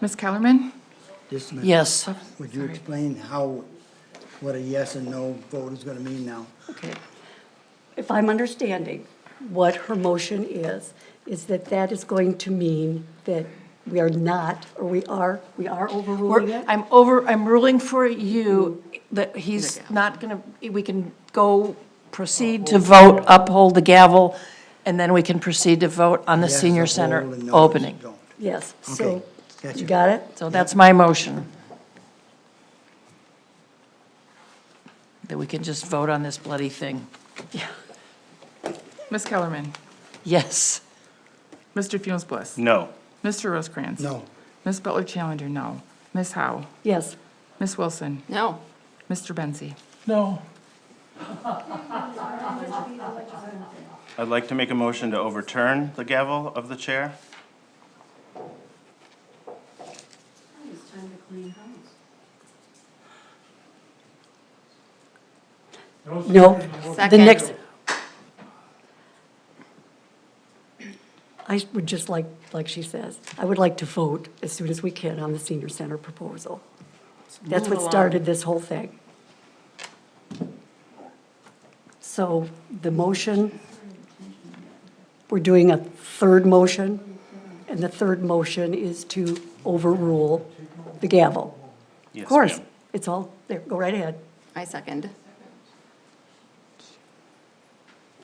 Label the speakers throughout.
Speaker 1: Ms. Kellerman?
Speaker 2: Yes, ma'am.
Speaker 3: Yes.
Speaker 2: Would you
Speaker 1: Sorry.
Speaker 2: explain how, what a yes and no vote is gonna mean now?
Speaker 3: Okay.
Speaker 4: if I'm understanding what her motion is, is that that is going to mean that we are not, or we are, we are overruling
Speaker 3: We're-
Speaker 4: it?
Speaker 3: I'm over, I'm ruling for you that he's not going to, we can go proceed to vote, uphold the gavel, and then we can proceed to vote on the
Speaker 2: Yes,
Speaker 3: senior
Speaker 2: uphold
Speaker 3: center
Speaker 2: and no,
Speaker 3: opening.
Speaker 2: don't.
Speaker 4: Yes,
Speaker 2: Okay,
Speaker 4: so,
Speaker 2: gotcha.
Speaker 4: you got it?
Speaker 3: So that's my motion. That we can just vote on this bloody thing.
Speaker 1: Ms. Kellerman?
Speaker 3: Yes.
Speaker 1: Mr. Funes Bliss?
Speaker 5: No.
Speaker 1: Mr. Rosecrans?
Speaker 2: No.
Speaker 1: Ms. Butler Challenger, no. Ms. Howe?
Speaker 4: Yes,
Speaker 1: Ms. Wilson?
Speaker 3: No.
Speaker 1: Mr. Benzi?
Speaker 5: No. I'd like to make a motion to overturn the gavel of the chair.
Speaker 4: no, the next. I would just like, like she says, I would like to vote as soon as we can on the senior center proposal. That's what started this whole thing. So the motion, we're doing a third motion, and the third motion is to overrule the gavel.
Speaker 5: Yes,
Speaker 4: Of course,
Speaker 5: ma'am.
Speaker 4: it's all, there, go right ahead.
Speaker 6: I second.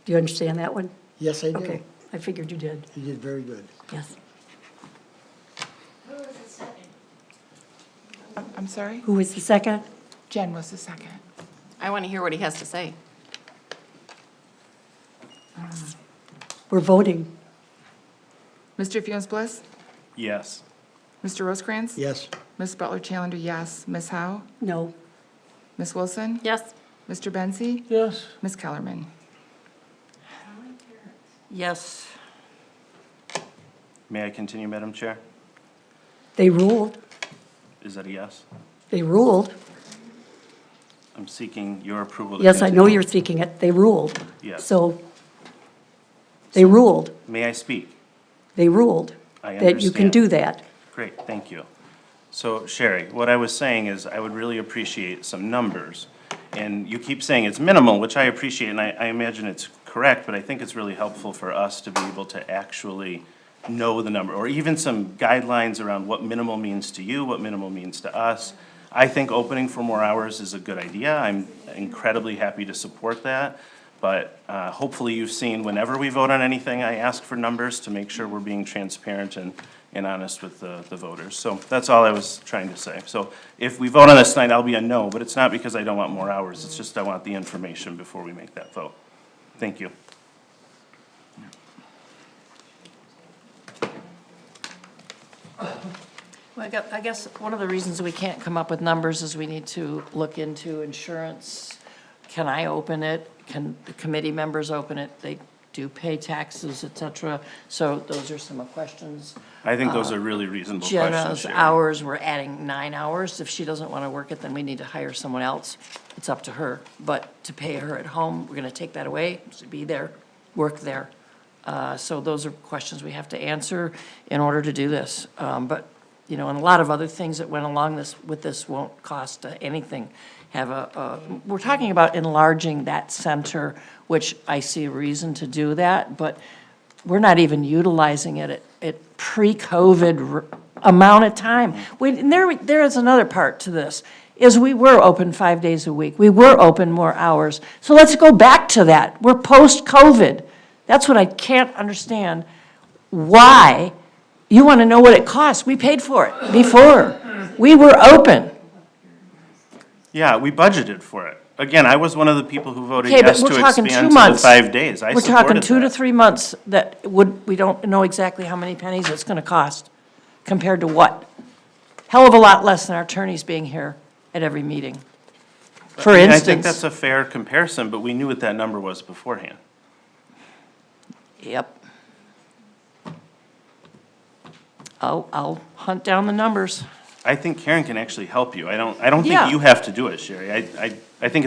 Speaker 4: Do you understand that one?
Speaker 2: Yes, I do.
Speaker 4: Okay, I figured you did,
Speaker 2: You did very good.
Speaker 4: yes.
Speaker 1: I'm- I'm sorry?
Speaker 4: Who was the second?
Speaker 1: Jen was the second.
Speaker 6: I want to hear what he has to say.
Speaker 4: We're voting,
Speaker 1: Mr. Funes Bliss?
Speaker 5: Yes.
Speaker 1: Mr. Rosecrans?
Speaker 2: Yes,
Speaker 1: Ms. Butler Challenger, yes. Ms. Howe?
Speaker 4: no.
Speaker 1: Ms. Wilson?
Speaker 6: Yes.
Speaker 1: Mr. Benzi?
Speaker 5: Yes.
Speaker 1: Ms. Kellerman?
Speaker 3: Yes.
Speaker 5: May I continue, Madam Chair?
Speaker 4: They ruled,
Speaker 5: Is that a yes?
Speaker 4: they ruled.
Speaker 5: I'm seeking your approval. to
Speaker 4: Yes, I know
Speaker 5: continue.
Speaker 4: you're seeking it, they ruled.
Speaker 5: Yes.
Speaker 4: So, they ruled,
Speaker 5: May I speak?
Speaker 4: they ruled
Speaker 5: I
Speaker 4: that you can
Speaker 5: understand.
Speaker 4: do that.
Speaker 5: Great, thank you. So Sherry, what I was saying is I would really appreciate some numbers. And you keep saying it's minimal, which I appreciate, and I, I imagine it's correct, but I think it's really helpful for us to be able to actually know the number, or even some guidelines around what minimal means to you, what minimal means to us. I think opening for more hours is a good idea. I'm incredibly happy to support that. But uh, hopefully you've seen, whenever we vote on anything, I ask for numbers to make sure we're being transparent and, and honest with the, the voters. So that's all I was trying to say. So if we vote on this tonight, I'll be a no, but it's not because I don't want more hours. It's just I want the information before we make that vote. Thank you.
Speaker 3: Well, I got- I guess one of the reasons we can't come up with numbers is we need to look into insurance. Can I open it? Can the committee members open it? They do pay taxes, et cetera. So those are some of the questions.
Speaker 5: I think those are really reasonable questions,
Speaker 3: Uh, Jenna's
Speaker 5: Sherry.
Speaker 3: hours, we're adding nine hours. If she doesn't want to work it, then we need to hire someone else. It's up to her. But to pay her at home, we're going to take that away, She'd be there, work there. Uh, So those are questions we have to answer in order to do this. Um, But, you know, and a lot of other things that went along this, with this won't cost uh, anything. Have a, a- we're talking about enlarging that center, which I see a reason to do that, but we're not even utilizing it at, at pre-COVID r- amount of time. We, and there, there is another part to this, is we were open five days a week. We were open more hours. So let's go back to that. We're post-COVID. That's what I can't understand, why you want to know what it costs. We paid for it before. We were open.
Speaker 5: Yeah, we budgeted for it. Again, I was one of the people who voted
Speaker 3: Okay, but
Speaker 5: yes
Speaker 3: we're
Speaker 5: to
Speaker 3: talking
Speaker 5: expand
Speaker 3: two
Speaker 5: to the
Speaker 3: months.
Speaker 5: five days. I
Speaker 3: We're talking
Speaker 5: supported
Speaker 3: two to
Speaker 5: that.
Speaker 3: three months that would, we don't know exactly how many pennies it's gonna cost compared to what. Hell of a lot less than our attorneys being here at every meeting. For
Speaker 5: And I think that's
Speaker 3: instance,
Speaker 5: a fair comparison, but we knew what that number was beforehand.
Speaker 3: yep. I'll, I'll hunt down the numbers.
Speaker 5: I think Karen can actually help you. I don't, I don't
Speaker 3: Yeah.
Speaker 5: think you have to do it, Sherry. I, I, I think